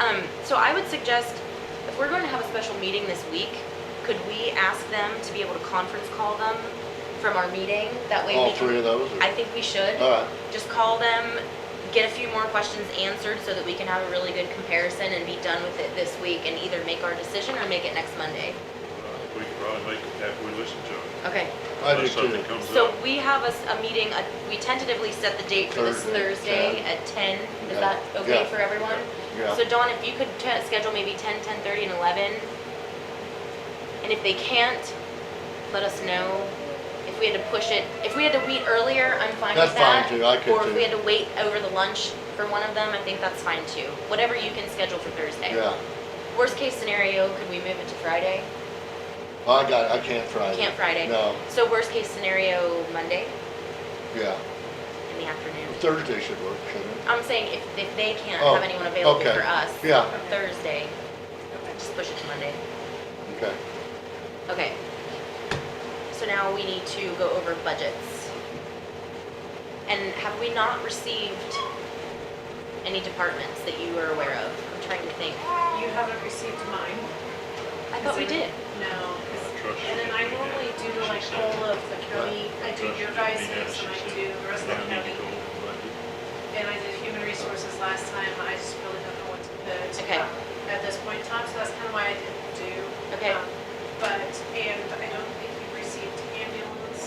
Um, so I would suggest, if we're going to have a special meeting this week, could we ask them to be able to conference call them from our meeting? That way All we three of Uh. can, those? I think we should. All right, Just call them, get a few more questions answered so that we can have a really good comparison and be done with it this week and either make our decision or make it next Monday. We can probably make it after we listen to it. Okay. I do Unless something too. comes So up. we have a, s- a meeting, uh, we tentatively set the date for this Thursday, Thursday at ten. Is Yeah. that okay Yeah. for everyone? Yeah. So Dawn, if you could t- schedule maybe ten, ten-thirty and eleven. And if they can't, let us know. If we had to push it, if we had to meet earlier, I'm fine with That's fine, that. too. I could, Or if too. we had to wait over the lunch for one of them, I think that's fine too. Whatever you can schedule for Thursday. Yeah, Worst case scenario, could we move it to Friday? Well, I got, I can't Friday. Can't Friday. No, So worst case scenario, Monday yeah, in the afternoon. Thursday should work, shouldn't it? I'm saying if, if they can't Oh, have anyone available okay. for us. Yeah. For Thursday, just push it to Monday. Okay, Okay. So now we need to go over budgets. And have we not received any departments that you are aware of? I'm trying to think. You haven't received mine. I thought we did. No. 'cause- Trust And then I me, normally do like all of the county, I do your guys' and I do the rest of the Now I need to county. go over budget. And I did human resources last time, I just really don't know what to put. Okay. uh, At this point in time, so that's kind of why I didn't do. Okay. um, But, and I don't think you received ambulance.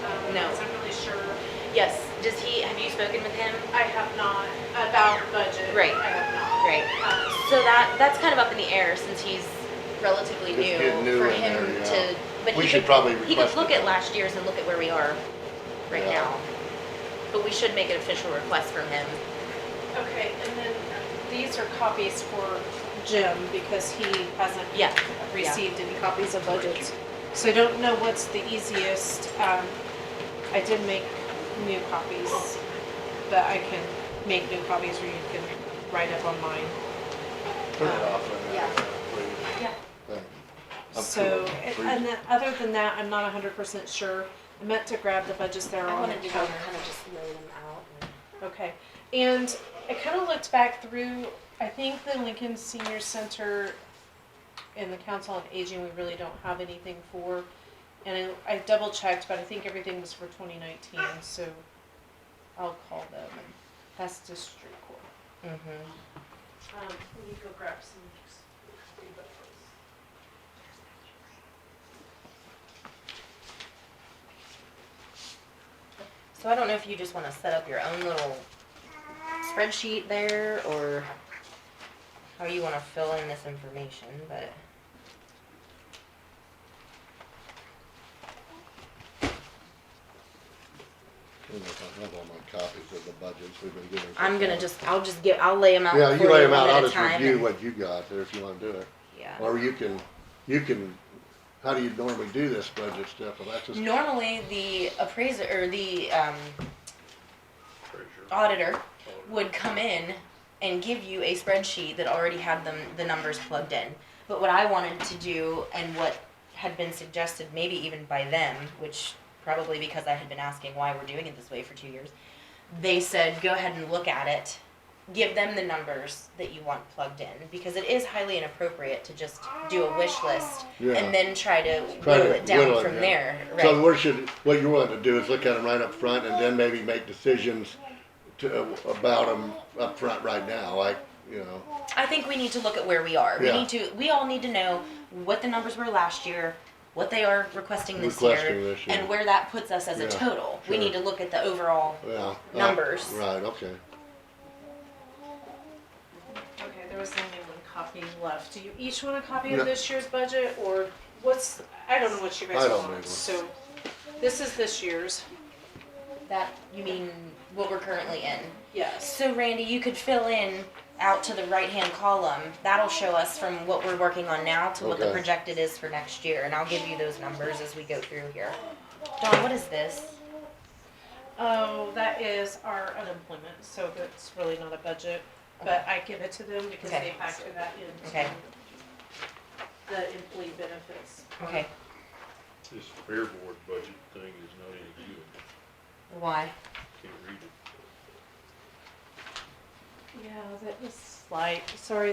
um, No. because I'm really sure, Yes. Does he, have you spoken with him? I have not, about budget. Right. I have not. Great. Um, So that, that's kind of up in the air since he's relatively Just new. getting new For in him there, yeah. to, but We he should could- probably He could request look it. at last year's and look at where we are right Yeah. now. But we should make an official request from him. Okay, and then um, these are copies for Jim because he hasn't Yeah, received any copies of budgets. So I don't know what's the easiest. Um, I did make new copies, but I can make new copies or you can write up on mine. turn it off. right now, Yeah. please. Yeah. Thank you. I'm So, cool. and- Please. and then, other than that, I'm not hundred percent sure. I meant to grab the budgets there I on the wanted to counter. kind of just lay them out. Okay, and I kind of looked back through, I think the Lincoln Senior Center and the Council on Aging, we really don't have anything for. And I, I double checked, but I think everything was for twenty nineteen, so I'll call them and that's district court. Mm-hmm. Um, we need to go grab some. So I don't know if you just want to set up your own little spreadsheet there or how you want to fill in this information, but. I don't know if I have all my copies of the budgets we've been getting. I'm gonna just, I'll just give, I'll lay them out Yeah, for you you lay them one out, at I'll a just time. review and- what you got there if you wanna do it. Yeah. Or you can, you can, how do you normally do this budget stuff? Well, that's just, Normally, the appraiser, or the, um, Treasurer. auditor would come in and give you a spreadsheet that already had them, the numbers plugged in. But what I wanted to do and what had been suggested maybe even by them, which probably because I had been asking why we're doing it this way for two years, they said, go ahead and look at it. Give them the numbers that you want plugged in because it is highly inappropriate to just do a wish list Yeah. and then try to Try to whittle it whittle down it from down. there. Right. so what should, what you're willing to do is look at them right up front and then maybe make decisions to, about them up front right now, like, you know, I think we need to look at where we are. We Yeah. need to. We all need to know what the numbers were last year, what they are requesting this Requesting year, this year. and where that puts us as Yeah, a total. We sure. need to look at the overall. yeah. uh, Numbers. Right, okay. Okay, there was only one copy left. Do you each want a copy No. of this year's budget or what's, I don't know what you I guys don't need one. want, so this is this year's, That you mean what we're currently in. yes. So Randy, you could fill in out to the right-hand column. That'll show us from what we're working on now to what the Okay. projected is for next year, and I'll give you those numbers as we go through here. Dawn, what is this? Oh, that is our unemployment, so that's really not a budget, but I give it to them because Okay. they factor that Okay. into the employee benefits. Okay. This fair board budget thing is not any good. Why? Can't read it. Yeah, that was, light. Sorry,